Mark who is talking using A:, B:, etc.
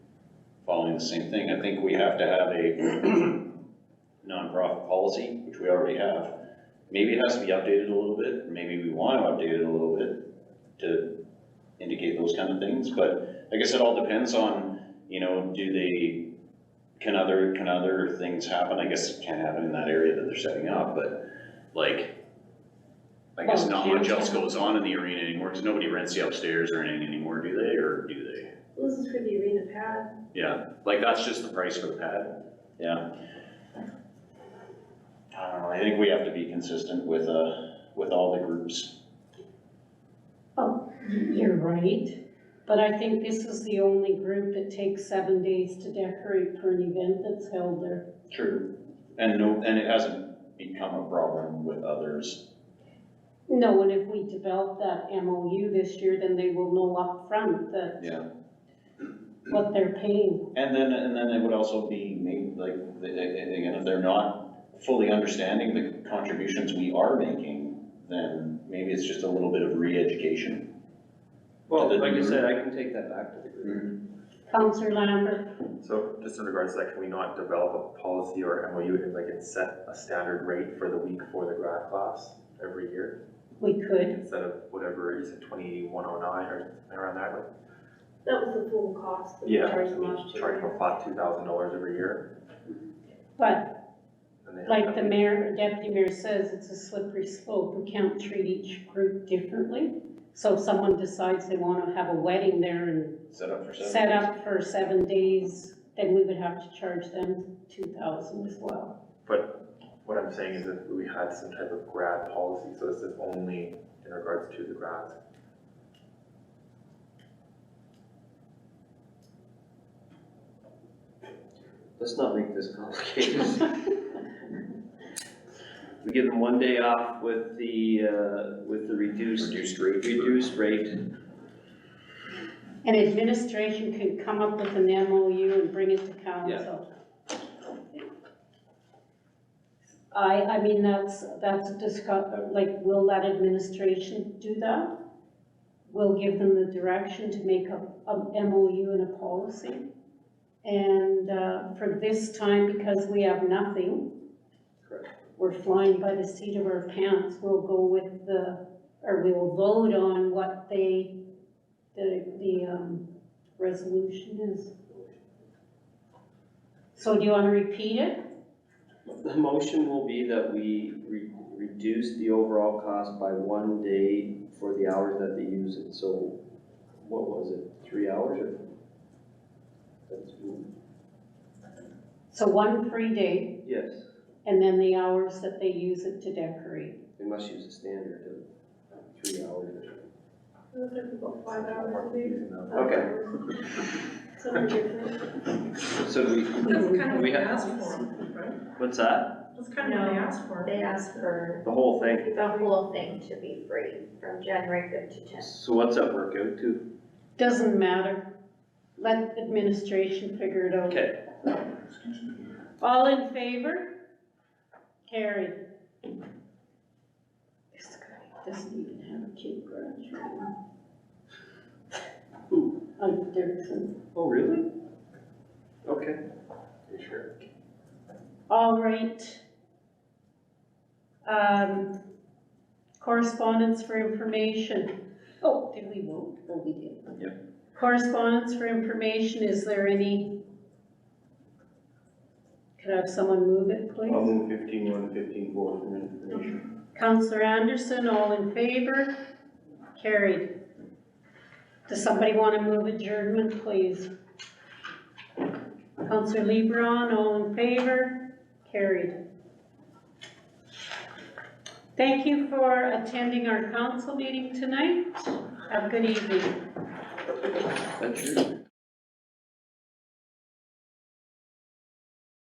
A: following the same thing. I think we have to have a nonprofit policy, which we already have. Maybe it has to be updated a little bit, maybe we want to update it a little bit to indicate those kind of things, but I guess it all depends on, you know, do they, can other, can other things happen? I guess it can't happen in that area that they're setting up, but like, I guess not much else goes on in the arena anymore, because nobody rents the upstairs or anything anymore, do they, or do they?
B: Well, This is for the arena pad.
A: Yeah, like that's just the price for the pad, yeah. I don't know, I think we have to be consistent with, uh, with all the groups.
C: You're right, but I think this is the only group that takes seven days to decorate for an event that's held there.
A: True. And no, and it hasn't become a problem with others.
C: No, and if we develop that MOU this year, then they will know upfront that
A: Yeah.
C: what they're paying.
A: And then, and then it would also be made, like, the- the- again, if they're not fully understanding the contributions we are making, then maybe it's just a little bit of re-education.
D: Well,
A: To the
D: like you
A: group.
D: said, I can take that back to the group.
A: Mm-hmm.
C: Counselor Lambert,
E: So just in regards to that, can we not develop a policy or MOU, and like it's set a standard rate for the week for the grad class every year?
C: we could,
E: Instead of whatever, you said twenty-one oh nine or something around that, like,
B: That was the full cost that we
E: yeah,
B: charged
E: I
B: them
E: mean,
B: last
E: charge them
B: year.
E: a flat two thousand dollars every year.
C: but
E: and they have
C: like the
E: that-
C: mayor, deputy mayor says, it's a slippery slope. We can't treat each group differently. So if someone decides they want to have a wedding there and
A: Set up for seven.
C: set
A: days.
C: up for seven days, then we would have to charge them two thousand as well.
E: What I'm saying is if we had some type of grad policy, so this is only in regards to the grads.
D: Let's not make this complicated. We give them one day off with the, uh, with the reduced,
A: Reduced rate.
D: reduced rate.
C: And administration can come up with an MOU and bring it to council. I, I mean, that's, that's a discuss, like, will that administration do that? We'll give them the direction to make a, a MOU and a policy. And, uh, for this time, because we have nothing, we're flying by the seat of our pants, we'll go with the, or we will vote on what they, the, the, um, resolution is. So do you wanna repeat it?
D: The motion will be that we re- reduce the overall cost by one day for the hours that they use it, so what was it, three hours or? That's,
C: So one free day,
D: yes,
C: and then the hours that they use it to decorate.
D: they must use a standard of three hours.
B: It was like about five hours a week.
E: Using
B: Oh.
E: them.
B: five
D: Okay.
B: hours. Something different.
D: So do we,
F: That's kind of what
D: We
F: they
D: have-
F: asked for, right?
D: what's that?
F: That's kind of what they
B: No.
F: asked for.
G: They asked for
D: The whole thing?
G: the whole thing to be free from January fifth to tenth.
D: So what's that work out to?
C: Doesn't matter, let administration figure it out.
D: Okay,
C: All in favor? Carried. This guy doesn't even have a key garage.
D: Who?
C: Like Dirksen.
D: oh, really? Okay.
E: Are you sure?
C: All right. Um, correspondence for information. Oh, did we vote? Oh, we did. Yep. Correspondence for information, is there any? Could I have someone move it, please?
H: I'll move fifteen one, fifteen four for information.
C: Counselor Anderson, all in favor? Carried. Does somebody want to move adjournment, please? Counselor Lebron, all in favor? Carried. Thank you for attending our council meeting tonight. Have a good evening.
D: That's true.